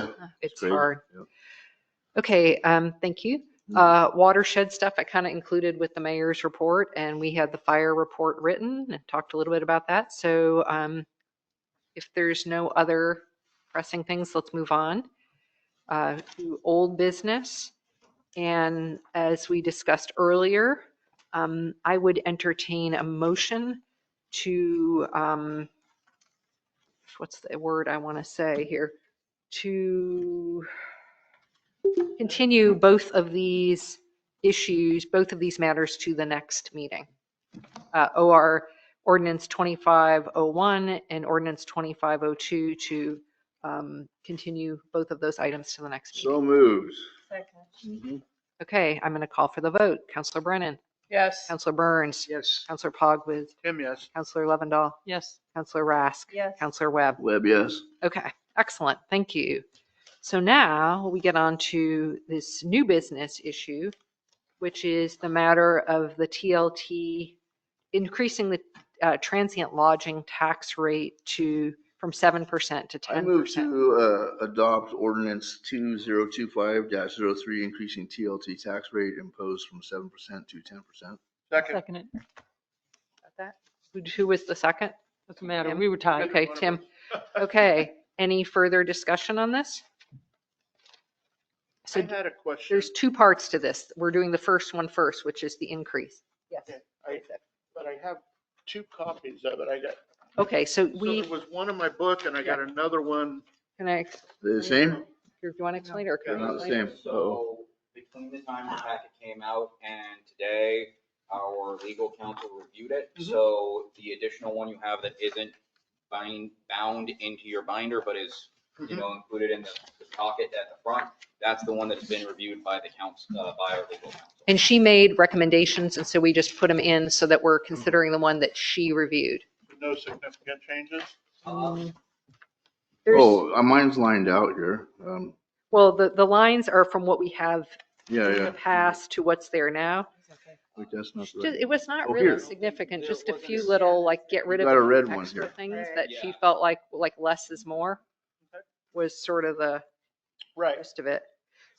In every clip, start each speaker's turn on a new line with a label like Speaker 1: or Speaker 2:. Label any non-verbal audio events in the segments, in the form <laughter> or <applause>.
Speaker 1: Uh, it's
Speaker 2: great.
Speaker 1: hard.
Speaker 2: Yeah. Mm-hmm.
Speaker 1: Okay, um, thank you. Uh, watershed stuff I kind of included with the mayor's report and we had the fire report written and talked a little bit about that. So, um, if there's no other pressing things, let's move on. Uh, to old business. And as we discussed earlier, um, I would entertain a motion to, um, what's the word I want to say here? To continue both of these issues, both of these matters to the next meeting. Uh, OR ordinance 2501 and ordinance 2502 to um, continue both of those items to the next meeting.
Speaker 2: So moves.
Speaker 1: Okay, I'm going to call for the vote. Counselor Brennan,
Speaker 3: Yes.
Speaker 1: Counselor Burns,
Speaker 3: Yes.
Speaker 1: Counselor Pogwidd,
Speaker 3: Tim, yes.
Speaker 1: Counselor Lovendall,
Speaker 3: Yes.
Speaker 1: Counselor Rask,
Speaker 3: Yes.
Speaker 1: Counselor Webb.
Speaker 2: Webb, yes.
Speaker 1: Okay, excellent. Thank you. So now we get on to this new business issue, which is the matter of the TLT, increasing the uh, transient lodging tax rate to, from 7% to
Speaker 2: I move
Speaker 1: 10%.
Speaker 2: to uh, adopt ordinance 2025-03, increasing TLT tax rate imposed from 7% to 10%.
Speaker 3: Second.
Speaker 4: Second it.
Speaker 1: Who- Who was the second?
Speaker 4: Doesn't matter.
Speaker 1: Tim?
Speaker 4: We were tied.
Speaker 1: Okay, Tim. Okay, any further discussion on this?
Speaker 3: I
Speaker 1: So
Speaker 3: had a question,
Speaker 1: there's two parts to this. We're doing the first one first, which is the increase.
Speaker 3: but I have two copies of it. I got,
Speaker 1: Okay, so
Speaker 3: so
Speaker 1: we,
Speaker 3: there was one in my book and I got another one.
Speaker 1: can I,
Speaker 2: They're the same?
Speaker 1: do you want to explain it or?
Speaker 2: They're
Speaker 1: can I
Speaker 2: not the
Speaker 1: explain it?
Speaker 2: same. Uh-oh.
Speaker 5: So between the time the packet came out and today, our legal counsel reviewed it.
Speaker 2: Mm-hmm.
Speaker 3: Mhm.
Speaker 5: So the additional one you have that isn't bind, bound into your binder, but is,
Speaker 2: Mm-hmm.
Speaker 5: you know, included in the the pocket at the front, that's the one that's been reviewed by the council, uh, by our legal counsel.
Speaker 1: And she made recommendations, and so we just put them in so that
Speaker 2: Mm-hmm.
Speaker 1: we're considering the one that she reviewed.
Speaker 3: No significant changes?
Speaker 5: Um,
Speaker 1: There's,
Speaker 2: Oh, uh, mine's lined out here. Um,
Speaker 1: well, the, the lines are from what we have
Speaker 2: Yeah,
Speaker 1: in
Speaker 2: yeah.
Speaker 1: the past to what's there now.
Speaker 2: Wait, that's not the right-
Speaker 1: It was not
Speaker 2: Oh,
Speaker 1: really
Speaker 2: here.
Speaker 1: significant,
Speaker 5: There
Speaker 1: just a
Speaker 5: wasn't
Speaker 1: few
Speaker 5: a-
Speaker 1: little, like, get rid
Speaker 2: You
Speaker 1: of
Speaker 2: got a red one
Speaker 1: extra
Speaker 2: here.
Speaker 1: things
Speaker 3: Right.
Speaker 1: that she
Speaker 5: Yeah. Mm-hmm.
Speaker 1: felt like, like less is more
Speaker 3: Okay.
Speaker 1: was sort of the
Speaker 3: Right.
Speaker 1: rest of it.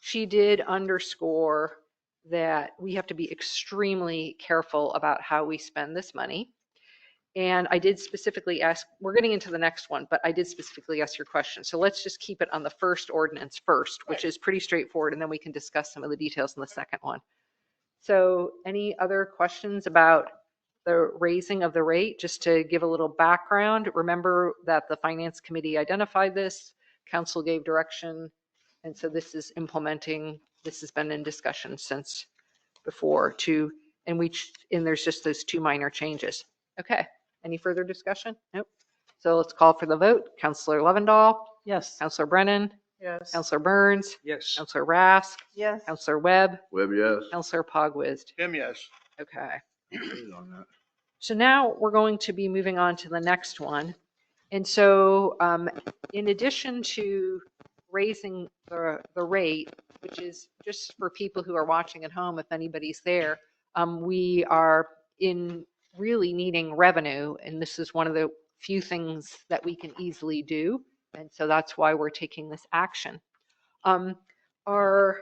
Speaker 1: She did underscore that we have to be extremely careful about how we spend this money. And I did specifically ask, we're getting into the next one, but I did specifically ask your question. So let's just keep it on the first ordinance first, which
Speaker 3: Right.
Speaker 1: is pretty straightforward, and then we can discuss some of the details in the second one. So any other questions about the raising of the rate? Just to give a little background, remember that the finance committee identified this, council gave direction, and so this is implementing, this has been in discussion since before to, and we, ch- and there's just those two minor changes. Okay, any further discussion? Nope. So let's call for the vote. Counselor Lovendall,
Speaker 4: Yes.
Speaker 1: Counselor Brennan,
Speaker 3: Yes.
Speaker 1: Counselor Burns,
Speaker 3: Yes.
Speaker 1: Counselor Rask,
Speaker 4: Yes.
Speaker 1: Counselor Webb,
Speaker 2: Webb, yes.
Speaker 1: Counselor Pogwizd.
Speaker 3: Tim, yes.
Speaker 1: Okay.
Speaker 2: On that.
Speaker 1: So now we're going to be moving on to the next one. And so um, in addition to raising the, the rate, which is just for people who are watching at home, if anybody's there, um, we are in really needing revenue. And this is one of the few things that we can easily do. And so that's why we're taking this action. Um, Our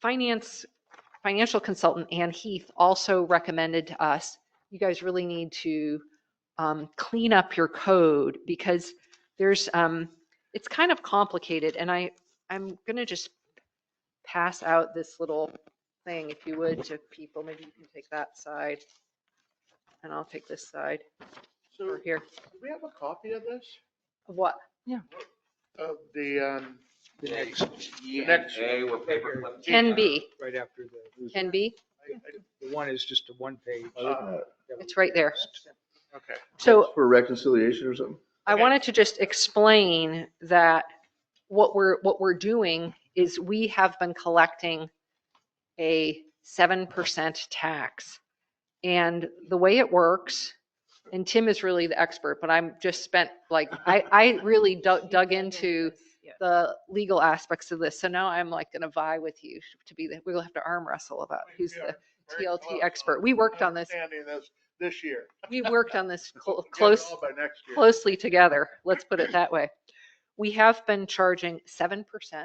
Speaker 1: finance, financial consultant Ann Heath also recommended to us you guys really need to um, clean up your code because there's, um, it's kind of complicated and I, I'm going to just pass out this little thing, if you would, to people. Maybe you can take that side and I'll take this side
Speaker 3: So
Speaker 1: over
Speaker 3: do
Speaker 1: here.
Speaker 3: we have a copy of this?
Speaker 1: What?
Speaker 3: Of the, um,
Speaker 5: The next. E and
Speaker 3: next-
Speaker 5: A were paperclip.
Speaker 1: Can be,
Speaker 6: uh, right after the,
Speaker 1: can be.
Speaker 3: I-
Speaker 6: the one is just a one page.
Speaker 3: I- uh,
Speaker 1: It's right there.
Speaker 3: Okay.
Speaker 1: So
Speaker 2: For reconciliation or something?
Speaker 1: I
Speaker 3: Okay.
Speaker 1: wanted to just explain that what we're, what we're doing is we have been collecting a 7% tax. And the way it works, and Tim is really the expert, but I'm just spent, like,
Speaker 3: <laughs>
Speaker 1: I, I really dug dug into the legal aspects of this. So now I'm like going to vie with you to be, the we'll have to arm wrestle about who's
Speaker 3: We are
Speaker 1: the,
Speaker 3: very
Speaker 1: TLT
Speaker 3: close
Speaker 1: expert. We worked on this.
Speaker 3: Understanding this, this year.
Speaker 1: we worked on
Speaker 3: <laughs>
Speaker 1: this clo-
Speaker 3: We'll get it
Speaker 1: close
Speaker 3: all By next year.
Speaker 1: closely together, let's put it that way. We have been charging 7%